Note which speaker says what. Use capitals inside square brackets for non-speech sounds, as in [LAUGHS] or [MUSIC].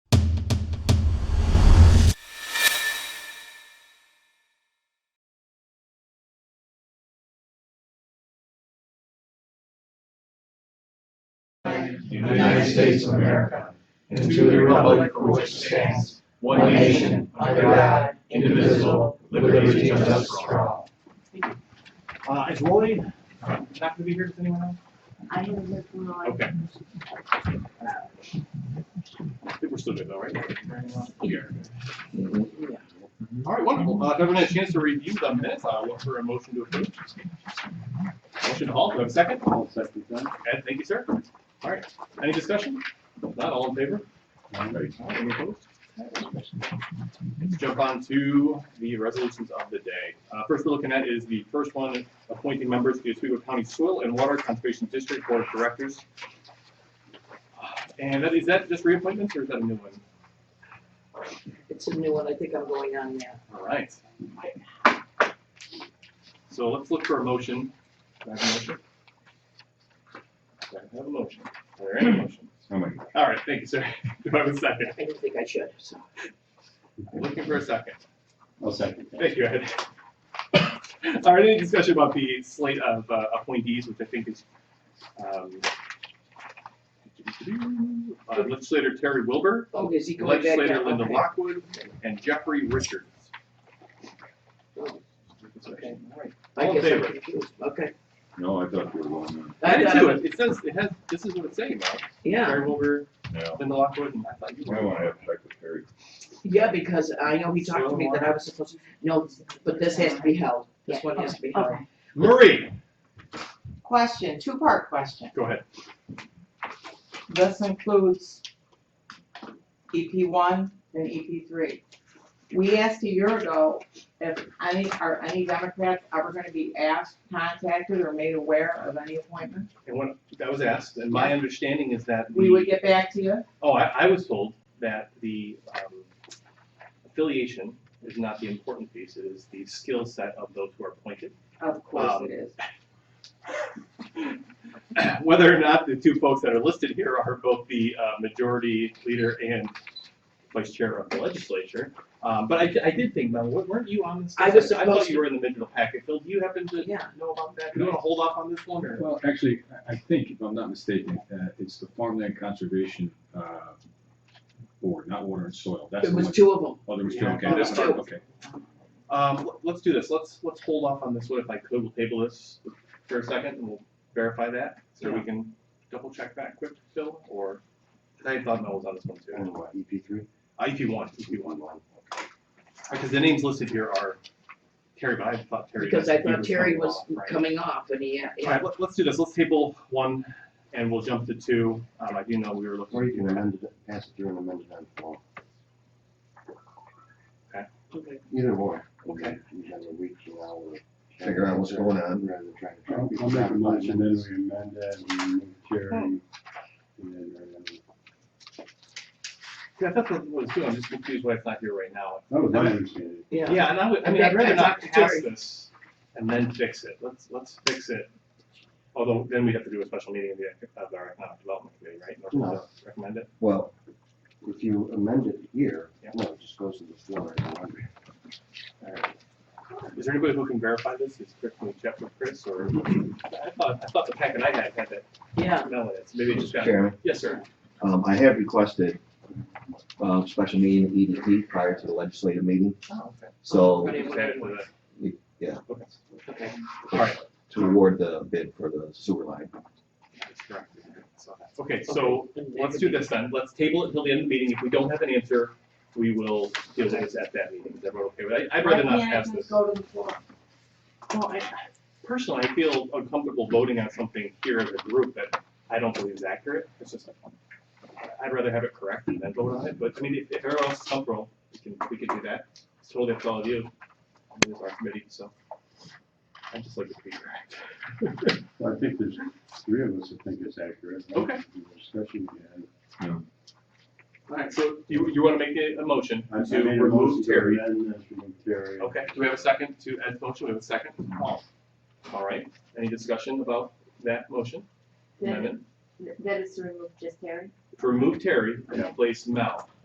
Speaker 1: President of the United States of America, and to the republic for which it stands, one nation, under God, indivisible, with liberty and justice for all.
Speaker 2: Uh, is Lori not gonna be here, does anyone else?
Speaker 3: I haven't lived in my life.
Speaker 2: Okay. I think we're still good though, right? Here. All right, wonderful. Uh, if everyone had a chance to review the minutes, I'll look for a motion to approve. Motion to halt, do I have a second?
Speaker 4: I'll second that.
Speaker 2: Ed, thank you, sir. All right, any discussion? If Not all in favor? All right, Any opposed? Let's jump on to the resolutions of the day. Uh, First we're looking at is the first one, appointing members to the Oswego County Soil and Water Conservation District Board of Directors. And that, is that just reappointments or is that a new one?
Speaker 5: It's a new one, I think I'm going on now.
Speaker 2: All right. So let's look for a motion. Do I have a motion? Do I have a motion? Or any motion?
Speaker 4: Oh my God.
Speaker 2: All right, thank you, sir. [LAUGHS] Do I have a second?
Speaker 5: I didn't think I should, so.
Speaker 2: Looking for a second.
Speaker 4: I'll second that.
Speaker 2: Thank you, Ed. All right, any discussion about the slate of uh, appointees, which I think is um, uh, legislator Terry Wilbur,
Speaker 5: Oh, is he going back down?
Speaker 2: legislator Linda
Speaker 5: Okay.
Speaker 2: Lockwood, and Jeffrey Richards.
Speaker 5: Oh, okay.
Speaker 2: All right.
Speaker 5: I
Speaker 2: All in
Speaker 5: guess I'm
Speaker 2: favor?
Speaker 5: confused, okay.
Speaker 4: No, I thought you were going
Speaker 2: I did
Speaker 5: thought-
Speaker 2: too. It it says, it has, this is what it's saying about.
Speaker 5: Yeah,
Speaker 2: Terry Wilbur,
Speaker 4: on.
Speaker 2: Linda Lockwood, and I thought you
Speaker 4: No, I
Speaker 2: were.
Speaker 4: want to have secretary.
Speaker 5: yeah, because I know he talked to me that I was supposed to, no, but this has to be held, this one has to be held.
Speaker 3: Okay.
Speaker 2: Marie,
Speaker 6: Question, two-part question.
Speaker 2: go ahead.
Speaker 6: This includes EP one and EP three. We asked a year ago if any, are any Democrats ever gonna be asked, contacted, or made aware of any appointment?
Speaker 2: And when that was asked, and my understanding is that
Speaker 6: We
Speaker 2: the-
Speaker 6: would get back to you.
Speaker 2: Oh, I, I was told that the um, affiliation is not the important piece, it is the skill set of those who are appointed.
Speaker 6: Of course it is.
Speaker 2: Whether or not the two folks that are listed here are both the uh, majority leader and vice chair of the legislature. Um, But I, I did think, Mel, wa- weren't you on this?
Speaker 5: I was
Speaker 2: I thought
Speaker 5: supposed
Speaker 2: you
Speaker 5: to-
Speaker 2: were in the middle packet, Phil, do you happen to
Speaker 5: Yeah.
Speaker 2: know about that? Do you want to hold off on this one, or?
Speaker 7: Well, actually, I- I think, if I'm not mistaken, uh, it's the Farmland Conservation uh, Board, not Water and Soil. That's
Speaker 5: There
Speaker 7: the
Speaker 5: was
Speaker 7: one.
Speaker 5: two of them,
Speaker 7: Oh, there was two,
Speaker 2: Yeah,
Speaker 7: okay.
Speaker 2: there was
Speaker 7: that's right,
Speaker 5: two.
Speaker 7: Okay.
Speaker 2: Um, l- let's do this, let's, let's hold off on this one if I could, we'll table this for a second and we'll verify that, so we can double check that quick, Phil, or, 'cause I thought Mel was on this one too.
Speaker 8: E
Speaker 4: EP three?
Speaker 2: Uh, if you want, if you want. Because the names listed here are Terry, but I thought Terry.
Speaker 5: because I
Speaker 2: he
Speaker 5: thought Terry
Speaker 2: coming
Speaker 5: was
Speaker 2: off, right.
Speaker 5: coming off, and he,
Speaker 2: All
Speaker 5: yeah,
Speaker 2: right, let, let's do this, let's table one and we'll jump to two, um, I do know we were looking.
Speaker 8: Or you can amend it, pass it through and amend it on the floor.
Speaker 5: okay.
Speaker 8: Either or.
Speaker 5: Okay.
Speaker 8: You have a week from now to figure out what's going on rather than trying to. track
Speaker 4: I'll
Speaker 8: people's
Speaker 4: make a motion that
Speaker 8: operations.
Speaker 4: we amend that and move Jerry. and then, uh,
Speaker 2: Yeah, I thought that was good, I'm just confused why it's not here right now.
Speaker 4: That was my understanding.
Speaker 5: yeah.
Speaker 2: Yeah, and I would, I
Speaker 5: In
Speaker 2: mean, I'd
Speaker 5: fact,
Speaker 2: rather
Speaker 5: I
Speaker 2: not
Speaker 5: talked to
Speaker 2: pass
Speaker 5: Terry.
Speaker 2: this and then fix it. Let's, let's fix it. Although then we'd have to do a special meeting of the, of our economic development committee, right? in order to Recommend it.
Speaker 8: Well, if you amend it here,
Speaker 2: Yeah.
Speaker 8: no, it just goes to the floor.
Speaker 2: All right. Is there anybody who can verify this? Is Chris, can we check with Chris or? I thought, I thought the packet I had had that
Speaker 5: Yeah,
Speaker 2: smell in it, so maybe it just got.
Speaker 9: Chairman,
Speaker 2: Yes, sir.
Speaker 9: um, I have requested, um, special meeting of EDP prior to the legislative meeting,
Speaker 5: oh, okay.
Speaker 9: so,
Speaker 5: But it
Speaker 2: Just add it to the-
Speaker 9: Yeah.
Speaker 2: Okay.
Speaker 5: Okay.
Speaker 2: All right.
Speaker 9: to award the bid for the sewer line.
Speaker 2: That's correct. So that's- Okay, so let's do this then. Let's table it until the end of the meeting. If we don't have an answer, we will deal with this at that meeting. Is everyone okay with that? I'd rather
Speaker 6: Why
Speaker 2: not
Speaker 6: can't I
Speaker 2: pass
Speaker 6: just
Speaker 2: this.
Speaker 6: go to the floor?
Speaker 2: Well, I, personally, I feel uncomfortable voting on something here as a group that I don't believe is accurate. It's just, I'd rather have it correct and then vote on it, but I mean, if, if everyone else is comfortable, we can, we can do that. It's totally up to all of you. I mean, It's our committee, so I just like it to be correct. [LAUGHS]
Speaker 4: I think there's three of us that think it's accurate. right?
Speaker 2: Okay.
Speaker 4: The Discussion we had.
Speaker 2: All right, so you, you want to make a, a motion
Speaker 4: I- I
Speaker 2: to
Speaker 4: made a motion
Speaker 2: remove
Speaker 4: to
Speaker 2: Terry?
Speaker 4: amend this, remove Terry.
Speaker 2: Okay, do we have a second to Ed's motion? We have a second. All right, any discussion about that motion?
Speaker 3: Yeah.
Speaker 2: Amendment?
Speaker 3: That is to remove just Terry?
Speaker 2: To remove Terry and
Speaker 4: Yeah.
Speaker 2: place Mel.